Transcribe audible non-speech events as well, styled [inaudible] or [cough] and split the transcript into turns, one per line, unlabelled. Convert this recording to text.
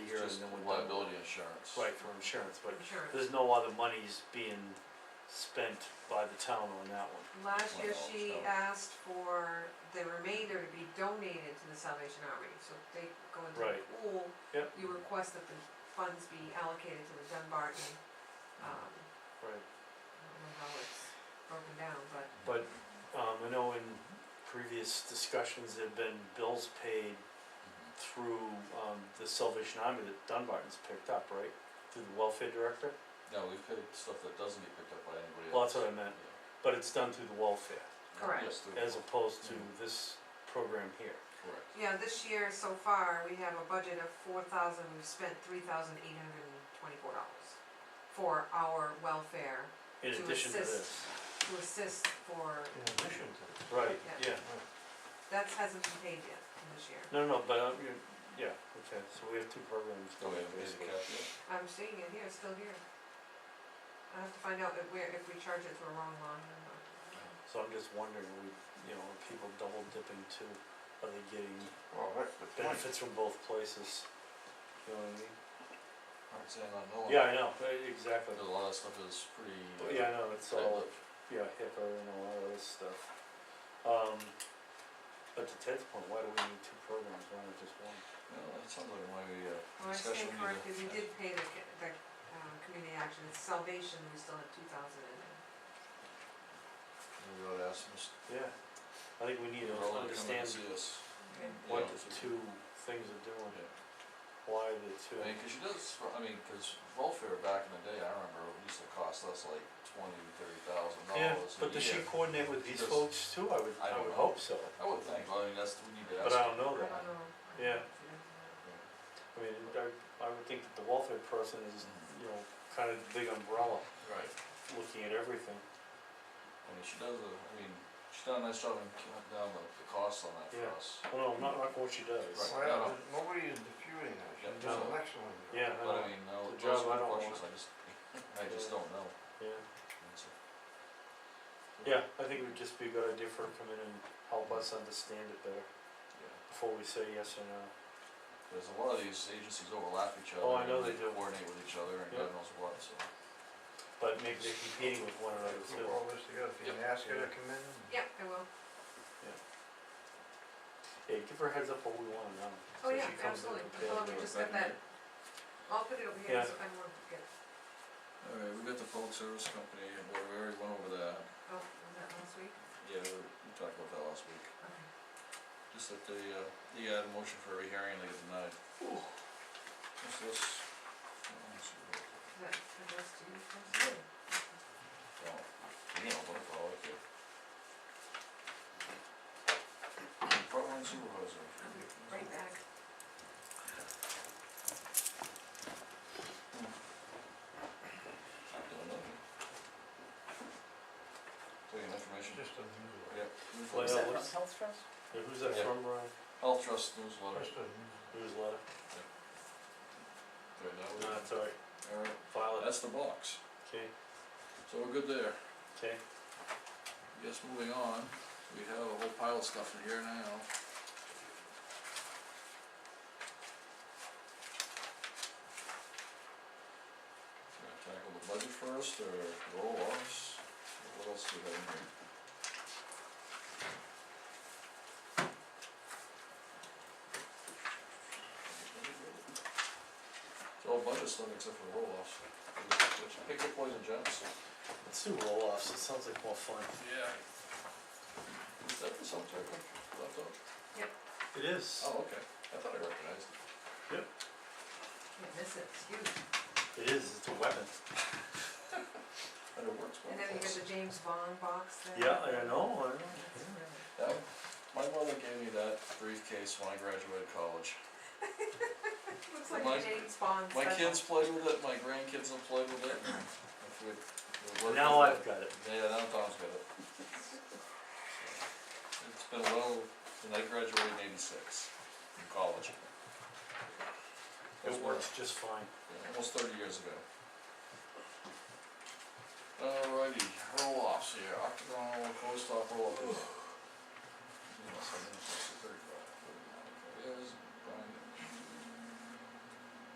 here and
Just
then we're done.
liability insurance.
Right, for insurance, but
Sure.
there's no other monies being spent by the town on that one.
Last year
Well,
she
so-
asked for the remainder to be donated to the Salvation Army, so if they go into the
Right.
pool.
Yep.
You request that the funds be allocated to the Dunbarton, um,
Right.
I don't know how it's broken down, but
But, um, I know in previous discussions, there've been bills paid
Mhm.
through, um, the Salvation Army that Dunbarton's picked up, right? Through the welfare director?
No, we've picked stuff that doesn't get picked up by anybody
Well,
else.
that's what I meant, but it's done through the welfare,
Yeah.
Correct.
Yes, through-
as opposed to
Mm.
this program here.
correct.
Yeah, this year so far, we have a budget of four thousand, we've spent three thousand eight hundred and twenty-four dollars for our welfare,
In
To
addition to
assist.
this,
to assist for,
In addition to,
right,
Yeah.
yeah,
that hasn't been paid yet in this year.
no, no, but, uh, you- yeah, okay, so we have two programs
Oh, we
going
haven't paid the
basically.
cap yet?
I'm seeing it here, it's still here. I have to find out if we're, if we charge it to a wrong line or not.
So I'm just wondering, we, you know, are people double dipping too, are they getting
well, that's the point.
benefits from both places? You know what I mean?
Aren't saying I know.
Yeah, I know, uh, exactly,
But a lot of stuff is pretty. uh,
But yeah, I know, it's all,
tight-lipped.
yeah, HIPAA and a lot of this stuff. Um, but to Ted's point, why do we need two programs, why not just one?
Well, that sounds like why we,
Well,
uh,
I
discussion we need
stand
to.
corrected, we did pay the, ca- the, um, community action, it's Salvation, we still have two thousand in there.
Maybe we ought to ask them, s-
Yeah, I think we need
they're
to
all gonna come in and
understand
see us.
Okay.
what
Yeah.
the two things are doing,
Yeah.
why the two.
I mean, cause she does, I mean, cause welfare back in the day, I remember, it used to cost us like twenty, thirty thousand dollars a
Yeah,
year.
but does she coordinate with these
Does-
folks too? I would,
I
I
don't
would
know.
hope so,
I would think, well, I mean, that's, we need to ask.
but I don't know
I
that.
don't know.
Yeah. I mean, I, I would think that the welfare person is, you know, kind of the big umbrella,
Right.
looking at everything.
I mean, she does, a- I mean, she's done a nice job in cutting down the, the costs on that for
Yeah.
us.
Well, no, I'm not knocking what she does.
Right.
Well, there's- nobody is disputing that, she
Yeah,
does an
no.
excellent job.
Yeah, I
But
know,
I mean, no,
The
those
job I
are the
don't
questions, I just, [laughs] I just
Yeah.
don't know.
yeah.
That's it.
Yeah, I think it would just be a good idea for her to come in and help us understand it better
Yeah.
before we say yes or no.
There's a lot of these agencies overlap each other.
Oh, I know
and
they do.
Coordinate with each other and
Yeah.
God knows what, so.
But maybe they're competing with one another
Group
too.
all this together, can you ask her to come in?
Yep, I will.
Yeah, give her a heads up what we wanna know. so
Oh,
she
yeah,
comes in
absolutely. I
prepared
thought
to
we
do it.
just got that. I'll put it over here,
Yeah.
so I don't want to forget.
Alright, we got the public service company, and we already went over that.
Oh, was that last week?
Yeah, we we talked about that last week.
Okay.
Just that they, uh, they had a motion for a hearing and they denied. What's this? Oh, let's see what-
Is that addressed to you?
Yeah.
Chris?
Oh, you know, what if I like it? Frontline supervisor.
Right back.
I don't know. Taking information.
Just unusual,
Yep.
Well,
Is that
yeah,
from
let's-
Health Trust?
Yeah, who's that
Yeah.
from, Brian?
Health Trust newsletter.
just unusual.
Newsletter?
Oh, Right, that
No,
was-
it's alright,
Alright,
file it,
that's the box.
okay,
So we're good there.
okay.
Yes, moving on, we have a whole pile of stuff in here now. Gonna tackle the budget first, or roll offs, what else do we have in here? It's all budget stuff except for roll offs, which pick your poison, Janice.
Let's do roll-offs, it sounds like more fun.
Yeah. Is that the song title, Left Up?
It is,
Oh, okay, I thought I recognized it.
Can't miss it, it's huge.
it is, it's a weapon.
And it works well.
And then you got the James Bond box there.
Yeah, I know, I know.
That's really-
That, my mother gave me that briefcase when I graduated college.
Looks like
My-
a James Bond
My
special.
kids played with it, my grandkids have played with it. If we- if we work
Now
with
I've
it-
got it.
Yeah, now Tom's got it. It's been a while, and I graduated in eighty-six from college. That's
It
when-
works just fine.
Yeah, almost thirty years ago. Alrighty, roll offs here, octagon roll, closed top roll. up. You know, something.